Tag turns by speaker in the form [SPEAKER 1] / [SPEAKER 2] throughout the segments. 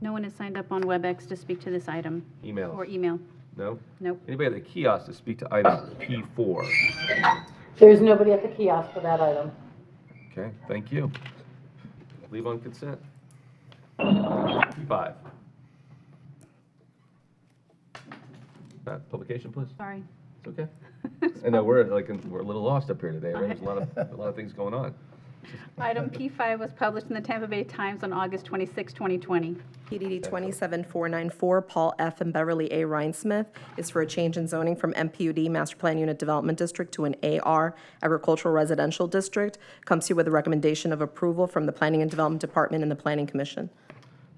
[SPEAKER 1] No one has signed up on WebEx to speak to this item or e-
[SPEAKER 2] Emails?
[SPEAKER 1] email.
[SPEAKER 2] No?
[SPEAKER 1] Nope.
[SPEAKER 2] Anybody at the kiosk to speak to item P4?
[SPEAKER 3] There's nobody at the kiosk for that item.
[SPEAKER 2] Okay, thank you. Leave on consent. P5. Matt, publication, please.
[SPEAKER 1] Sorry.
[SPEAKER 2] It's okay. I know, we're like, in- we're a little lost up here today, right? There's a lot of, a lot of things going on.
[SPEAKER 1] Item P5 was published in the Tampa Bay Times on August 26, 2020.
[SPEAKER 4] PDD 27494, Paul F. and Beverly A. Rhinesmith, is for a change in zoning from MPUD Master Plan Unit Development District to an AR Agricultural Residential District. Comes to you with a recommendation of approval from the Planning and Development Department and the Planning Commission.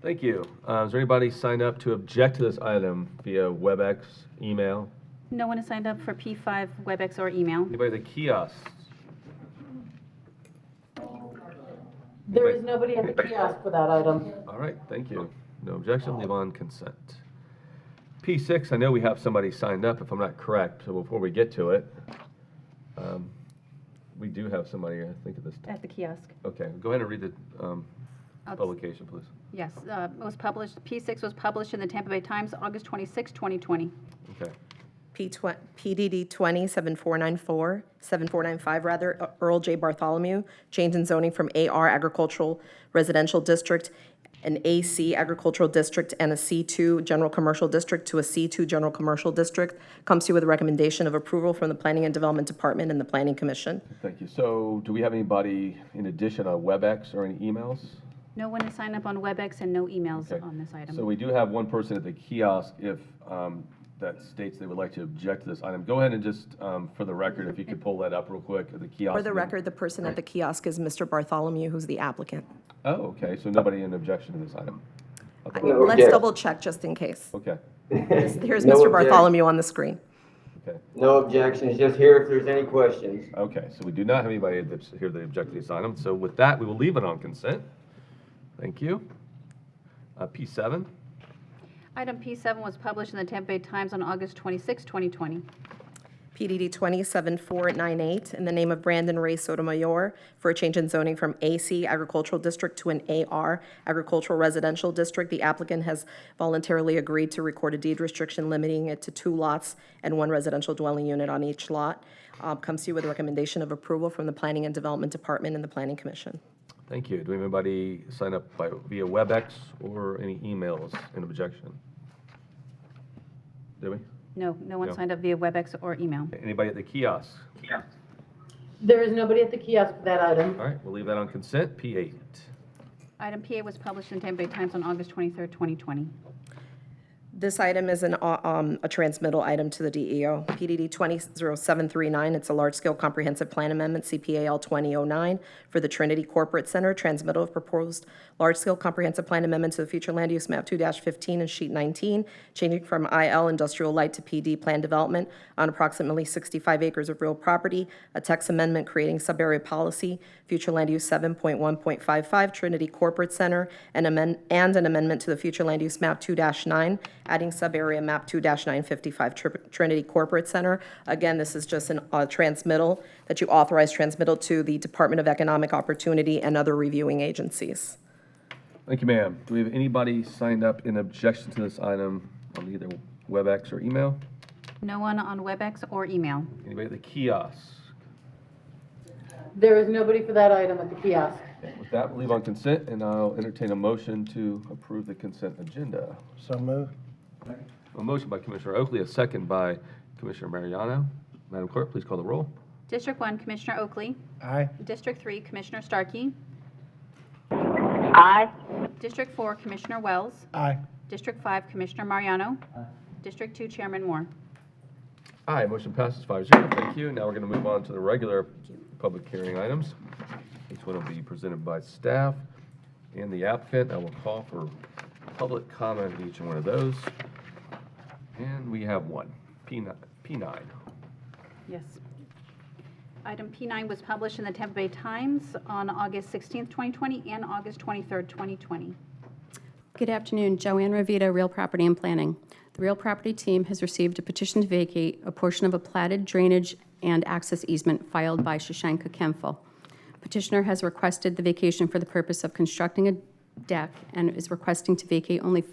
[SPEAKER 2] Thank you. Uh, is there anybody signed up to object to this item via WebEx, email?
[SPEAKER 1] No one has signed up for P5, WebEx, or email.
[SPEAKER 2] Anybody at the kiosk?
[SPEAKER 3] There is nobody at the kiosk for that item.
[SPEAKER 2] All right, thank you. No objection, leave on consent. P6, I know we have somebody signed up, if I'm not correct, so before we get to it, um, we do have somebody, I think, at this,
[SPEAKER 1] At the kiosk.
[SPEAKER 2] okay, go ahead and read the um,
[SPEAKER 1] I'll-
[SPEAKER 2] publication, please.
[SPEAKER 1] Yes, uh, it was published, P6 was published in the Tampa Bay Times, August 26, 2020.
[SPEAKER 2] Okay,
[SPEAKER 4] P twen- PDD 27494, 7495 rather, E- Earl J. Bartholomew, change in zoning from AR Agricultural Residential District, an AC Agricultural District, and a C2 General Commercial District to a C2 General Commercial District. Comes to you with a recommendation of approval from the Planning and Development Department and the Planning Commission.
[SPEAKER 2] thank you. So do we have anybody in addition on WebEx or any emails?
[SPEAKER 1] No one has signed up on WebEx and no emails
[SPEAKER 2] Okay.
[SPEAKER 1] on this item.
[SPEAKER 2] So we do have one person at the kiosk if um, that states they would like to object to this item. Go ahead and just, um, for the record, if you could pull that up real quick, at the kiosk.
[SPEAKER 4] For the record, the person at the kiosk is Mr. Bartholomew, who's the applicant.
[SPEAKER 2] Oh, okay, so nobody in objection to this item?
[SPEAKER 4] I-
[SPEAKER 5] No,
[SPEAKER 4] Let's
[SPEAKER 5] yes.
[SPEAKER 4] double check just in case.
[SPEAKER 2] Okay,
[SPEAKER 4] Here's
[SPEAKER 5] No
[SPEAKER 4] Mr.
[SPEAKER 5] objection.
[SPEAKER 4] Bartholomew on the screen.
[SPEAKER 2] okay,
[SPEAKER 5] No objections, just here if there's any questions.
[SPEAKER 2] okay, so we do not have anybody that's here that object to this item, so with that, we will leave it on consent. Thank you. Uh, P seven,
[SPEAKER 1] Item P7 was published in the Tampa Bay Times on August 26, 2020.
[SPEAKER 4] PDD 27498, in the name of Brandon Ray Sotomayor, for a change in zoning from AC Agricultural District to an AR Agricultural Residential District. The applicant has voluntarily agreed to record a deed restriction limiting it to two lots and one residential dwelling unit on each lot. Uh, Comes to you with a recommendation of approval from the Planning and Development Department and the Planning Commission.
[SPEAKER 2] thank you. Do we have anybody sign up by, via WebEx or any emails in objection? Do we?
[SPEAKER 1] No, no one
[SPEAKER 2] No.
[SPEAKER 1] signed up via WebEx or email.
[SPEAKER 2] Anybody at the kiosk?
[SPEAKER 3] There is nobody at the kiosk for that item.
[SPEAKER 2] All right, we'll leave that on consent, P eight.
[SPEAKER 1] Item PA was published in the Tampa Bay Times on August 23, 2020.
[SPEAKER 4] This item is an, uh, um, a transmittal item to the E DEO. PDD 200739, it's a large-scale comprehensive plan amendment, CPAL 2009, for the Trinity Corporate Center, transmittal of proposed large-scale comprehensive plan amendment to the future land use map 2-15 and sheet 19, changing from IL industrial light to PD plan development on approximately 65 acres of real property, a text amendment creating subarea policy, future land use 7.1.55 Trinity Corporate Center, and amend, and an amendment to the future land use map 2-9, adding subarea map 2-955 Tri- Trinity Corporate Center. Again, this is just an, uh, transmittal, that you authorize transmittal to the Department of Economic Opportunity and other reviewing agencies.
[SPEAKER 2] Thank you, ma'am. Do we have anybody signed up in objection to this item on either WebEx or email?
[SPEAKER 1] No one on WebEx or email.
[SPEAKER 2] Anybody at the kiosk?
[SPEAKER 3] There is nobody for that item at the kiosk.
[SPEAKER 2] Okay, With that, we'll leave on consent, and I'll entertain a motion to approve the consent agenda.
[SPEAKER 6] So moved.
[SPEAKER 2] A motion by Commissioner Oakley, a second by Commissioner Mariano. Madam Clerk, please call the roll.
[SPEAKER 1] District 1, Commissioner Oakley.
[SPEAKER 6] Aye.
[SPEAKER 1] District 3, Commissioner Starkey. Aye. District 4, Commissioner Wells.
[SPEAKER 6] Aye.
[SPEAKER 1] District 5, Commissioner Mariano. District 2, Chairman Moore.
[SPEAKER 2] Aye, motion passes five zero. Thank you. Now we're going to move on to the regular public hearing items. Each one will be presented by staff and the applicant. I will call for public comment on each one of those. And we have one, P nine, P nine.
[SPEAKER 1] Yes. Item P9 was published in the Tampa Bay Times on August 16, 2020, and August 23, 2020.
[SPEAKER 7] Good afternoon, Joanne Ravita, Real Property and Planning. The Real Property team has received a petition to vacate a portion of a platted drainage and access easement filed by Shashanka Kemful. Petitioner has requested the vacation for the purpose of constructing a deck and is requesting to vacate only